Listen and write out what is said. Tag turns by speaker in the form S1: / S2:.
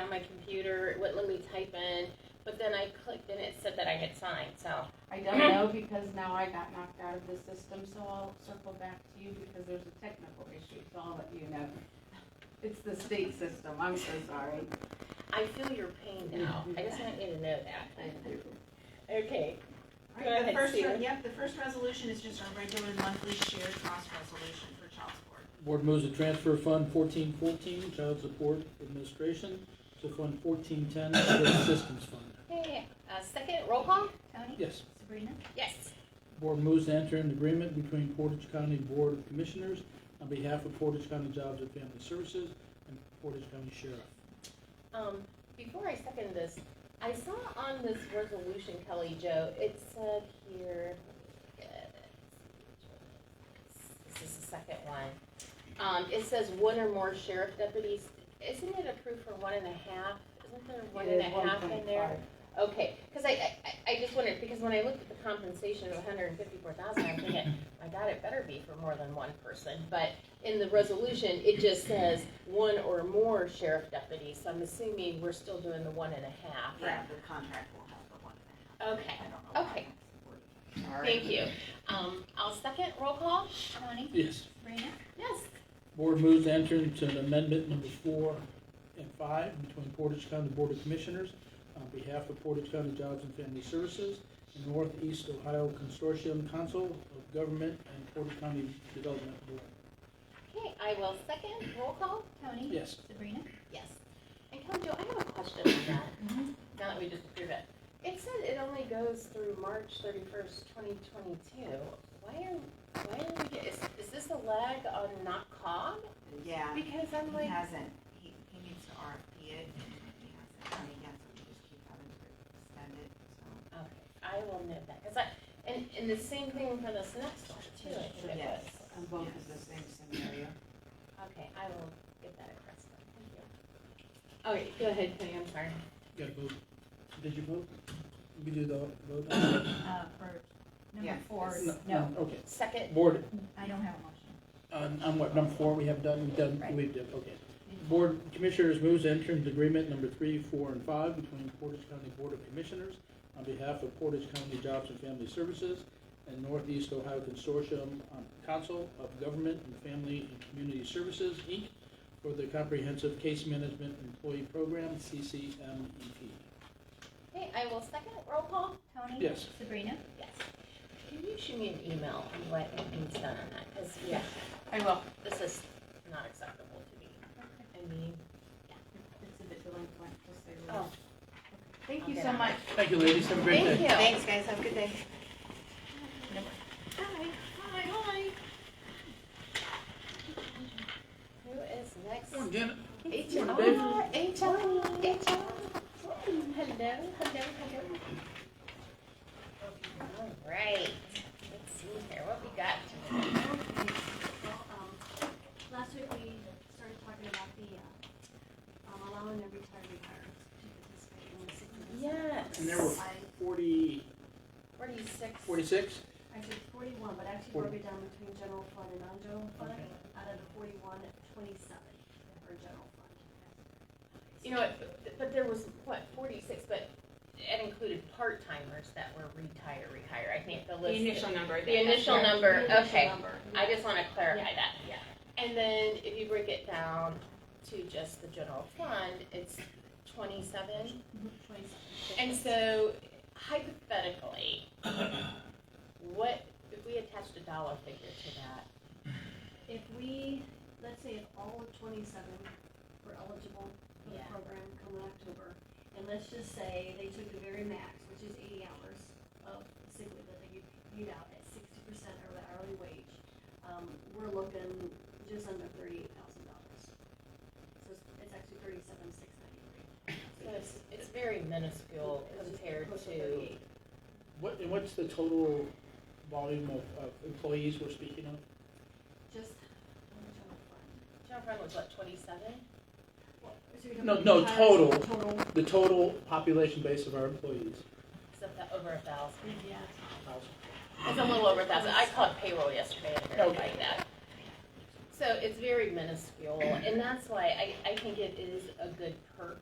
S1: on my computer. It wouldn't let me type in. But then I clicked and it said that I had signed. So
S2: I don't know because now I got knocked out of the system, so I'll circle back to you because there's a technical issue, so I'll let you know. It's the state system, I'm so sorry.
S1: I feel your pain now. I just want you to know that. Okay.
S3: Right,
S1: Go ahead,
S3: the first,
S1: Stephen.
S3: yep, the first resolution is just our regular monthly shared cost resolution for child support.
S4: Board moves to transfer fund fourteen fourteen, Child Support Administration, to fund fourteen ten, School Systems Fund.
S1: Okay. Uh, second roll call.
S5: Tony?
S4: Yes.
S5: Sabrina?
S1: Yes.
S4: Board moves to enter an agreement between Portage County Board of Commissioners on behalf of Portage County Jobs and Family Services and Portage County Sheriff.
S1: Um, before I second this, I saw on this resolution, Kelly Joe, it said here, let me get it. this is the second one. Um, it says one or more sheriff deputies. Isn't it approved for one and a half? Isn't there one and a half in there? Okay, because I, I- I, I just wondered, because when I looked at the compensation of hundred and fifty-four thousand, I'm thinking, my God, it better be for more than one person. But in the resolution, it just says one or more sheriff deputies, so I'm assuming we're still doing the one and a half.
S3: Yeah, the contract will have the one and
S1: Okay,
S3: a half. I don't know why
S1: Okay.
S3: that's important. Sorry.
S1: thank you. Um, I'll second roll call.
S5: Tony?
S4: Yes.
S5: Sabrina?
S1: Yes.
S4: Board moves to enter into an amendment number four and five between Portage County Board of Commissioners on behalf of Portage County Jobs and Family Services and Northeast Ohio Consortium Council of Government and Portage County Development Board.
S1: Okay, I will second roll call.
S5: Tony?
S4: Yes.
S5: Sabrina?
S1: Yes. And Kelly Jo, I have a question on that. Now that we just approved it. It said it only goes through March thirty-first, twenty twenty-two. Why are, why are we, get- is, is this a lag on not cog?
S3: Yeah,
S1: Because I'm
S3: he
S1: like,
S3: hasn't, he, he needs to RFP it, and he hasn't, I mean, he hasn't, we just keep having to extend it, so.
S1: okay, I will note that, cause I, and, and the same thing for this next one too, I think it
S3: Yes.
S1: was.
S2: And both is the same scenario.
S1: Okay, I will get that across then, thank you. All right, go ahead, Kenny, I'm sorry.
S4: Got to vote. Did you vote? We do the vote? No,
S5: Uh, for number
S3: Yeah.
S5: four,
S4: no,
S5: no,
S4: Okay.
S1: Second,
S4: Board,
S5: I don't have a motion.
S4: on, on what, number four we have done, we've done,
S5: Right.
S4: we've done, okay. Board Commissioners moves to enter into agreement number three, four, and five between Portage County Board of Commissioners on behalf of Portage County Jobs and Family Services and Northeast Ohio Consortium on Council of Government and Family and Community Services, Inc., for the Comprehensive Case Management Employee Program, CCMEP.
S1: okay, I will second, roll call?
S5: Tony?
S4: Yes.
S5: Sabrina?
S1: Yes. Can you shoot me an email on what needs done on that, cause yeah,
S2: I will.
S1: this is not acceptable to me. I mean,
S2: It's a bit delinquent, just say
S1: oh,
S2: Thank you
S1: Okay.
S2: so much.
S4: Thank you, ladies. Have a great day.
S1: thank you.
S3: guys, have a good day.
S1: Hi, hi, hi. Who is next?
S4: Morning, Janet.
S1: It's
S4: Morning, babe.
S1: HR, HR, HR. Hello, hello, hello. All right, let's see here, what we got?
S6: Well, um, Last week, we started talking about the, uh, um, allowing the retired retirees to participate in the sick leave.
S1: Yes.
S4: And there were
S6: I,
S4: Forty,
S1: Forty-six.
S4: forty-six?
S6: I said forty-one, but actually broke it down between general fund and non-general fund. Out of the forty-one, twenty-seven are general fund.
S1: You know, what, but there was, what, forty-six, but it included part-timers that were retire, retire, I think the list.
S2: number.
S1: The initial number,
S6: The initial
S1: okay.
S6: number.
S1: I just want to clarify that. Yeah. And then if you break it down to just the general fund, it's twenty-seven.
S6: Twenty-seven.
S1: And so hypothetically, what, if we attached a dollar figure to that?
S6: If we, let's say if all of twenty-seven were eligible for the
S1: Yeah.
S6: program come October, and let's just say they took the very max, which is eighty hours of sick leave that they get paid out at sixty percent of the hourly wage, um, we're looking just under thirty-eight thousand dollars. So it's, it's actually thirty-seven, six ninety-three.
S1: So it's, it's very minuscule compared to,
S6: thirty-eight.
S4: What, and what's the total volume of, of employees we're speaking of?
S6: Just, I'm gonna try to find-
S1: general fund was what, twenty-seven?
S6: what- so you're
S4: No,
S6: talking
S4: no,
S6: entire
S4: total.
S6: Total,
S4: The total population base of our employees,
S1: So that over a thousand.
S6: yeah.
S1: It's a little over a thousand. I caught payroll yesterday and verified that. So it's very minuscule, and that's why I, I think it is a good perk